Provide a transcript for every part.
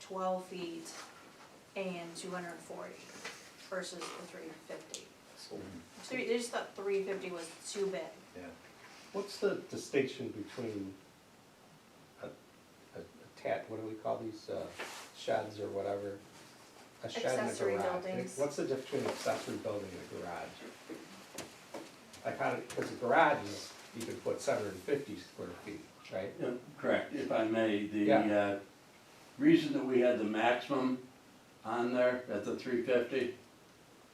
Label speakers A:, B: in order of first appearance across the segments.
A: twelve feet and two hundred and forty versus the three fifty.
B: So,
A: Three, they just thought three fifty was too big.
B: yeah.
C: What's the distinction between a, a a tat, what do we call these, uh, sheds or whatever? A shed and a garage.
A: Accessory
C: Like,
A: buildings.
C: What's the difference between accessory building and a garage? I kind of, because a garage is, you could put seven hundred and fifty square feet, right?
D: Yeah, Correct, if I may, the,
C: Yeah.
D: uh, reason that we had the maximum on there at the three fifty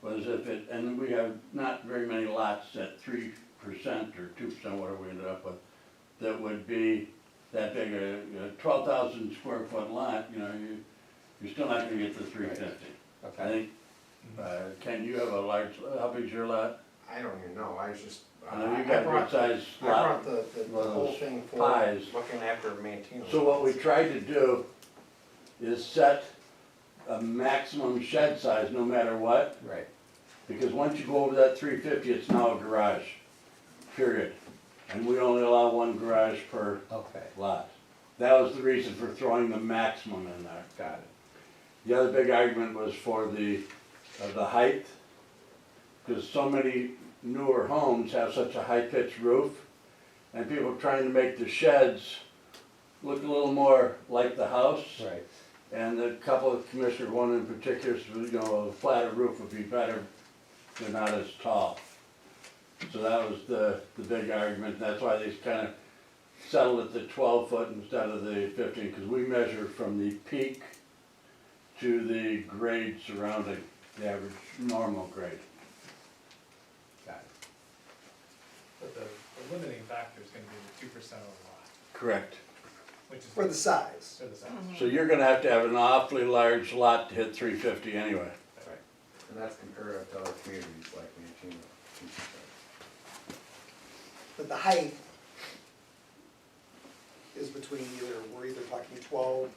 D: was if it, and we have not very many lots at three percent or two percent, whatever we ended up with, that would be that big, uh, a twelve thousand square foot lot, you know, you, you're still not gonna get the three fifty. I
C: Okay,
D: think,
E: Mm-hmm.
D: uh, Ken, you have a large, how big's your lot?
E: I don't even know, I was just,
D: I know
E: I
D: you
E: I
D: got a good
E: brought, I
D: sized lot.
E: brought the, the
D: one of
E: whole
D: those
E: thing for
D: pies.
E: looking after Mantino.
D: So what we tried to do is set a maximum shed size, no matter what,
C: right,
D: because once you go over that three fifty, it's now a garage, period. And we only allow one garage per
C: okay,
D: lot. That was the reason for throwing the maximum in there.
C: got it,
D: The other big argument was for the, uh, the height, because so many newer homes have such a high-pitched roof, and people trying to make the sheds look a little more like the house.
C: right,
D: And the couple of commissioners, one in particular, said, you know, a flatter roof would be better, they're not as tall. So that was the, the big argument, that's why they kind of settled at the twelve foot instead of the fifteen, because we measure from the peak to the grade surrounding, the average normal grade.
C: got it,
F: But the, the limiting factor is gonna be the two percent of the lot,
D: Correct.
F: which is.
G: For the size.
F: For the
A: Mm-hmm.
F: size.
D: So you're gonna have to have an awfully large lot to hit three fifty anyway.
E: And that's comparative to other communities like Mantino.
G: But the height is between either, we're either talking twelve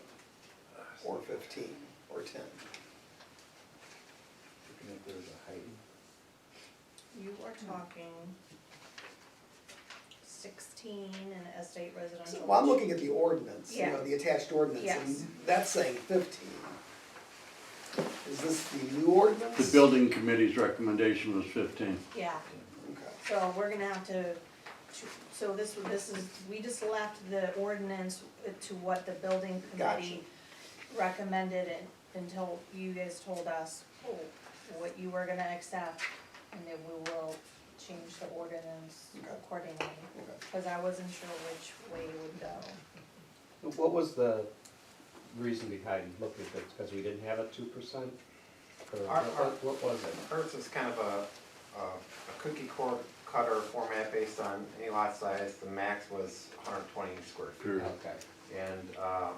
G: or fifteen or ten.
E: Looking at there's a height.
A: You are talking sixteen in estate residential.
G: So, well, I'm looking at the ordinance, you
A: Yeah.
G: know, the attached ordinance,
A: Yes.
G: and that's saying fifteen. Is this the new ordinance?
D: The building committee's recommendation was fifteen.
A: Yeah,
G: Okay.
A: so we're gonna have to, so this, this is, we just left the ordinance to what the building committee recommended it until you guys told us what you were gonna accept, and then we will change the ordinance
G: Okay.
A: accordingly.
G: Okay.
A: Cause I wasn't sure which way it would go.
C: what was the reason behind looking at this, because we didn't have a two percent? Or
E: Our- our-
C: what, what was it?
E: Hertz is kind of a, a a cookie cor- cutter format based on any lot size, the max was hundred and twenty square feet.
D: Sure.
C: Okay,
E: And uh,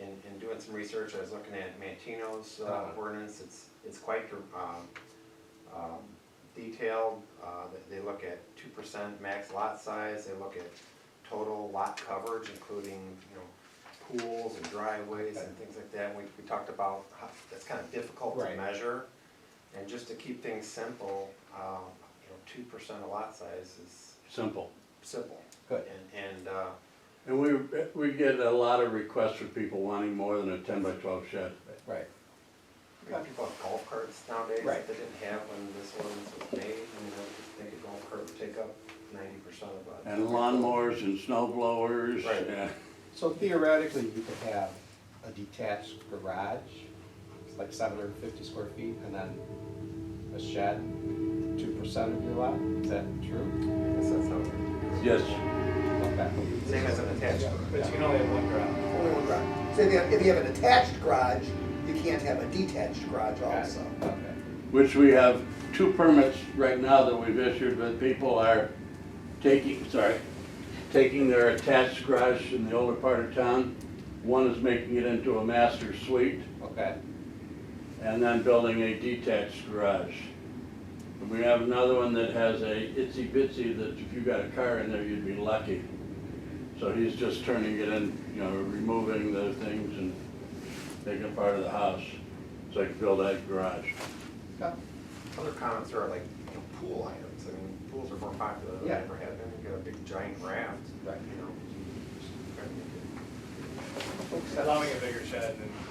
E: in, in doing some research, I was looking at Mantino's uh,
C: Uh-huh.
E: ordinance, it's, it's quite um, um, detailed. Uh, they- They look at two percent max lot size, they look at total lot coverage, including, you know, pools and driveways and things like that. We, we talked about how, that's kind of difficult to
C: Right.
E: measure. And just to keep things simple, um, you know, two percent of lot size is
D: Simple.
E: simple.
C: good.
E: And, and uh,
D: And we, we get a lot of requests for people wanting more than a ten by twelve shed.
C: Right,
E: We got people have golf carts nowadays
C: Right.
E: that they didn't have when this ordinance was made, you know, they could golf cart would take up ninety percent of a.
D: And lawnmowers and snow blowers.
E: Right.
D: yeah.
C: so theoretically, you could have a detached garage, it's like seven hundred and fifty square feet, and then a shed, two percent of your lot, is that true?
E: I guess that's how it-
D: Yes,
C: Okay,
E: Same as an attached garage.
F: But you can only have one garage.
G: Only one garage. So if you have, if you have an attached garage, you can't have a detached garage
C: got
G: also.
C: it, okay.
D: which we have two permits right now that we've issued, but people are taking, sorry, taking their attached garage in the older part of town. One is making it into a master suite
C: Okay,
D: and then building a detached garage. And we have another one that has a itsy bitsy that if you got a car in there, you'd be lucky. So he's just turning it in, you know, removing the things and making it part of the house. So I can build that garage.
C: Got-
E: Other comments are like, you know, pool items, I mean, pools are more popular than they
C: Yeah.
E: ever have been, you got a big giant raft, you
C: Right.
E: know.
F: Allowing a bigger shed and